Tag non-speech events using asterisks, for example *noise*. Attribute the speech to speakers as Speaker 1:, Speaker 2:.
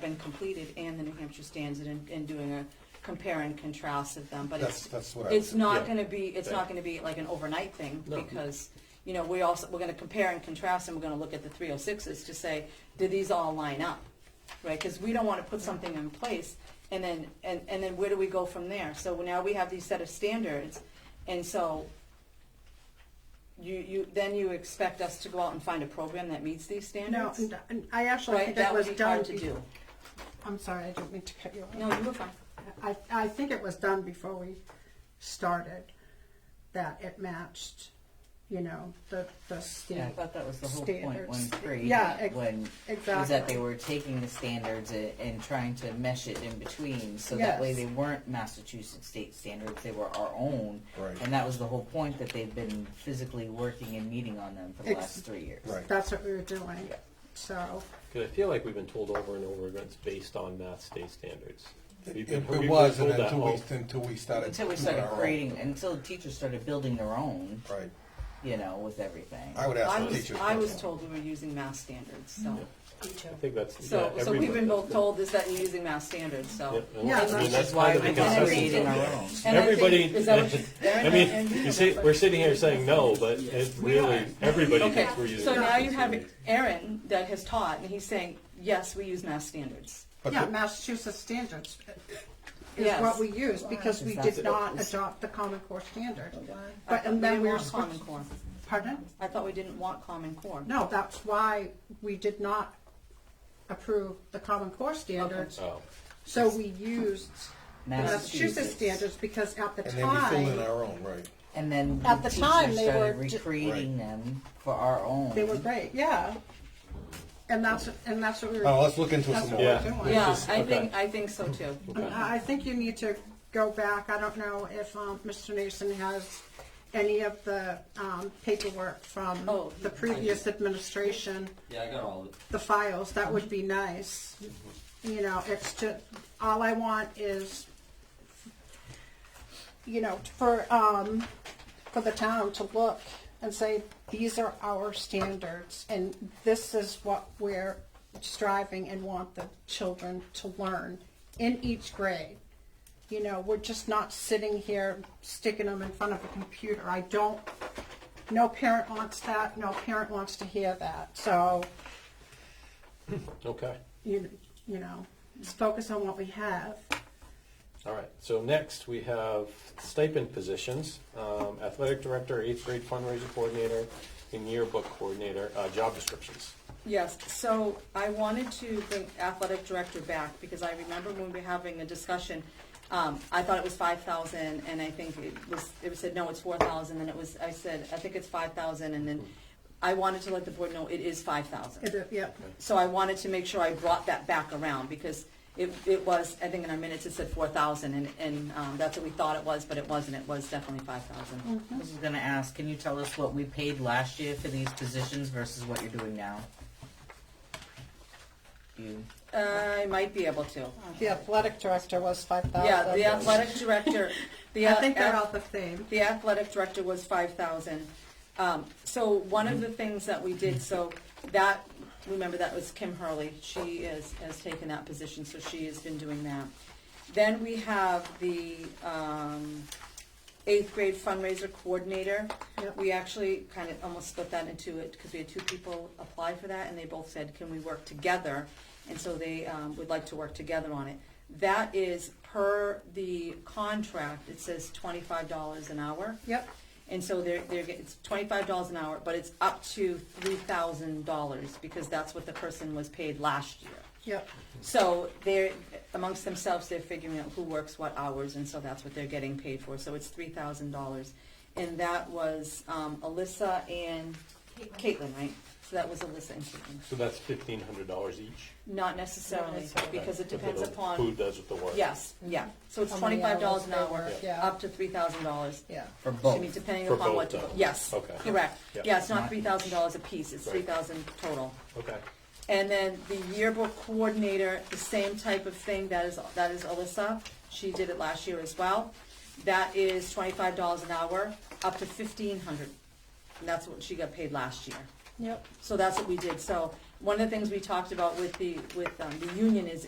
Speaker 1: been completed and the New Hampshire standard and, and doing a compare and contrast of them, but
Speaker 2: That's,
Speaker 1: it's,
Speaker 2: that's what I
Speaker 1: it's
Speaker 2: was,
Speaker 1: not
Speaker 3: yeah.
Speaker 1: gonna be, it's
Speaker 3: Right.
Speaker 1: not gonna be like an overnight thing,
Speaker 3: No.
Speaker 1: because, you know, we also, we're gonna compare and contrast, and we're gonna look at the three oh sixes to say, do these all line up? Right, cause we don't wanna put something in place, and then, and, and then where do we go from there? So now we have these set of standards, and so you, you, then you expect us to go out and find a program that meets these
Speaker 4: No,
Speaker 1: standards?
Speaker 4: and- and I actually
Speaker 1: Right,
Speaker 4: think that
Speaker 1: that would
Speaker 4: was
Speaker 1: be
Speaker 4: done.
Speaker 1: hard to
Speaker 4: be-
Speaker 1: do.
Speaker 4: I'm sorry, I didn't mean to cut you off.
Speaker 1: No, you were fine.
Speaker 4: I, I think it was done before we started, that it matched, you know, the, the
Speaker 5: Yeah, I
Speaker 4: state.
Speaker 5: thought that was the whole point when
Speaker 4: Standards.
Speaker 5: Bree,
Speaker 4: Yeah, ex-
Speaker 5: when, was that
Speaker 4: exactly.
Speaker 5: they were taking the standards and, and trying to mesh it in between, so that way
Speaker 4: Yes.
Speaker 5: they weren't Massachusetts state standards, they were our own.
Speaker 2: Right.
Speaker 5: And that was the whole point, that they've been physically working and meeting on them for the
Speaker 4: Ex-
Speaker 5: last three years.
Speaker 2: right.
Speaker 4: That's what we were doing,
Speaker 5: Yeah.
Speaker 4: so,
Speaker 3: Because I feel like we've been told over and over again, it's based on math state standards. We've
Speaker 2: It,
Speaker 3: been-
Speaker 2: it
Speaker 3: we've been
Speaker 2: was
Speaker 3: told that
Speaker 2: until we,
Speaker 3: all-
Speaker 2: until we started.
Speaker 5: Until we
Speaker 2: doing
Speaker 5: started
Speaker 2: our own.
Speaker 5: creating, until the teachers started building their own,
Speaker 2: Right.
Speaker 5: you know, with everything.
Speaker 2: I would
Speaker 1: I
Speaker 2: ask the
Speaker 1: was,
Speaker 2: teachers.
Speaker 1: I was
Speaker 2: first.
Speaker 1: told we were using math standards, so.
Speaker 3: I think that's.
Speaker 1: So,
Speaker 3: yeah,
Speaker 1: so we've been
Speaker 3: everyone-
Speaker 1: both told is that you're using math standards,
Speaker 3: Yeah,
Speaker 1: so.
Speaker 3: and
Speaker 4: Yeah,
Speaker 3: that's- I mean,
Speaker 4: that's-
Speaker 5: Which
Speaker 3: that's
Speaker 5: is
Speaker 3: part
Speaker 5: why
Speaker 3: of the
Speaker 5: we've
Speaker 1: And I
Speaker 5: been
Speaker 1: think-
Speaker 3: consensus.
Speaker 5: creating our own.
Speaker 1: And I think-
Speaker 3: Everybody-
Speaker 1: is that what you- Darren,
Speaker 3: I mean, *laughs*
Speaker 1: and-
Speaker 3: you see, we're sitting here saying no, but it really, everybody
Speaker 1: Okay,
Speaker 3: thinks we're using.
Speaker 1: so now
Speaker 3: math
Speaker 1: you have
Speaker 3: standards.
Speaker 1: Aaron that has taught, and he's saying, yes, we use math standards.
Speaker 2: But
Speaker 4: yeah,
Speaker 2: the-
Speaker 4: Massachusetts standards is
Speaker 1: Yes.
Speaker 4: what we used, because we
Speaker 5: That's
Speaker 4: did
Speaker 5: it.
Speaker 4: not adopt the Common Core standard.
Speaker 1: I
Speaker 4: But,
Speaker 1: thought we
Speaker 4: and then
Speaker 1: didn't
Speaker 4: we were
Speaker 1: want Common
Speaker 4: supposed,
Speaker 1: Core.
Speaker 4: pardon?
Speaker 1: I thought we didn't want Common Core.
Speaker 4: No, that's why we did not approve the Common Core standards.
Speaker 2: Uh,
Speaker 3: Oh,
Speaker 4: So we used the Massachusetts
Speaker 5: Massachusetts.
Speaker 4: standards because at the
Speaker 2: and then we filled in
Speaker 4: time,
Speaker 2: our own, right.
Speaker 5: And then
Speaker 4: At the
Speaker 5: teachers
Speaker 4: time, they
Speaker 5: started
Speaker 4: were ju-
Speaker 5: recreating them for our own.
Speaker 4: they were great, yeah. And that's, and that's what we
Speaker 2: Oh,
Speaker 4: were,
Speaker 2: let's look into it
Speaker 4: that's
Speaker 2: some
Speaker 4: what
Speaker 2: more.
Speaker 4: we were
Speaker 3: Yeah.
Speaker 4: doing. Uh,
Speaker 1: Yeah,
Speaker 3: This is-
Speaker 1: I
Speaker 3: okay.
Speaker 1: think, I think so too.
Speaker 3: okay.
Speaker 4: I I think you need to go back, I don't know if um, Mr. Nason has any of the um, paperwork from
Speaker 1: Oh.
Speaker 4: the previous administration,
Speaker 6: Mm-hmm. Yeah, I got all of it. Mm-hmm.
Speaker 4: the files, that would be nice. You know, it's just, all I want is, you know, for, um, for the town to look and say, these are our standards, and this is what we're striving and want the children to learn in each grade. You know, we're just not sitting here sticking them in front of a computer. I don't, no parent wants that, no parent wants to hear that, so,
Speaker 3: Okay,
Speaker 4: you, you know, just focus on what we have.
Speaker 3: all right. So next, we have stipend positions, um, athletic director, eighth grade fundraiser coordinator, and yearbook coordinator, uh, job descriptions.
Speaker 1: Yes, so I wanted to bring athletic director back because I remember when we were having a discussion, um, I thought it was five thousand and I think it was, it was said, no, it's four thousand, and it was, I said, I think it's five thousand and then I wanted to let the board know it is five thousand.
Speaker 4: It- Yep.
Speaker 1: So I wanted to make sure I brought that back around because it, it was, I think in our minutes it said four thousand and, and, um, that's what we thought it was, but it wasn't, it was definitely five thousand.
Speaker 5: I was gonna ask, can you tell us what we paid last year for these positions versus what you're doing now? You,
Speaker 4: Mm.
Speaker 1: I might be able to.
Speaker 4: The athletic director was five thousand.
Speaker 1: Yeah, the athletic
Speaker 4: *laughs*
Speaker 1: director, the. uh,
Speaker 4: I think they're
Speaker 1: ath-
Speaker 4: all the same.
Speaker 1: the athletic director was five thousand. Um, so one of the things that we did, so that, remember that was Kim Hurley, she is, has taken that position, so she has been doing that. Then we have the, um, eighth grade fundraiser coordinator.
Speaker 4: Yep.
Speaker 1: We actually kind of almost split that into it, because we had two people apply for that, and they both said, can we work together? And so they, um, would like to work together on it. That is per the contract, it says twenty-five dollars an hour.
Speaker 4: Yep,
Speaker 1: And so they're, they're, get- it's twenty-five dollars an hour, but it's up to three thousand dollars, because that's what the person was paid last year.
Speaker 4: yep.
Speaker 1: So they're, amongst themselves, they're figuring out who works what hours, and so that's what they're getting paid for, so it's three thousand dollars. And that was, um, Alyssa and Caitlin, right? So that was Alyssa and Caitlin,
Speaker 3: So that's fifteen hundred dollars each.
Speaker 1: not necessarily, because it depends
Speaker 3: Who
Speaker 1: upon,
Speaker 3: does with the work.
Speaker 1: yes, yeah, so it's
Speaker 4: How many hours
Speaker 1: twenty-five dollars an
Speaker 4: they
Speaker 1: hour,
Speaker 4: work, yeah.
Speaker 1: up to three thousand dollars.
Speaker 4: Yeah.
Speaker 5: for
Speaker 1: I mean,
Speaker 5: both,
Speaker 1: depending
Speaker 3: For
Speaker 1: upon
Speaker 3: both,
Speaker 1: what, to-
Speaker 3: though.
Speaker 1: yes,
Speaker 3: Okay.
Speaker 1: correct.
Speaker 3: Yeah.
Speaker 1: Yeah, it's not
Speaker 5: Not
Speaker 1: three thousand dollars apiece, it's
Speaker 3: Right.
Speaker 1: three thousand total.
Speaker 3: Okay,
Speaker 1: And then the yearbook coordinator, the same type of thing, that is, that is Alyssa, she did it last year as well. That is twenty-five dollars an hour, up to fifteen hundred, and that's what she got paid last year.
Speaker 4: Yep.
Speaker 1: So that's what we did, so, one of the things we talked about with the, with, um, the union is,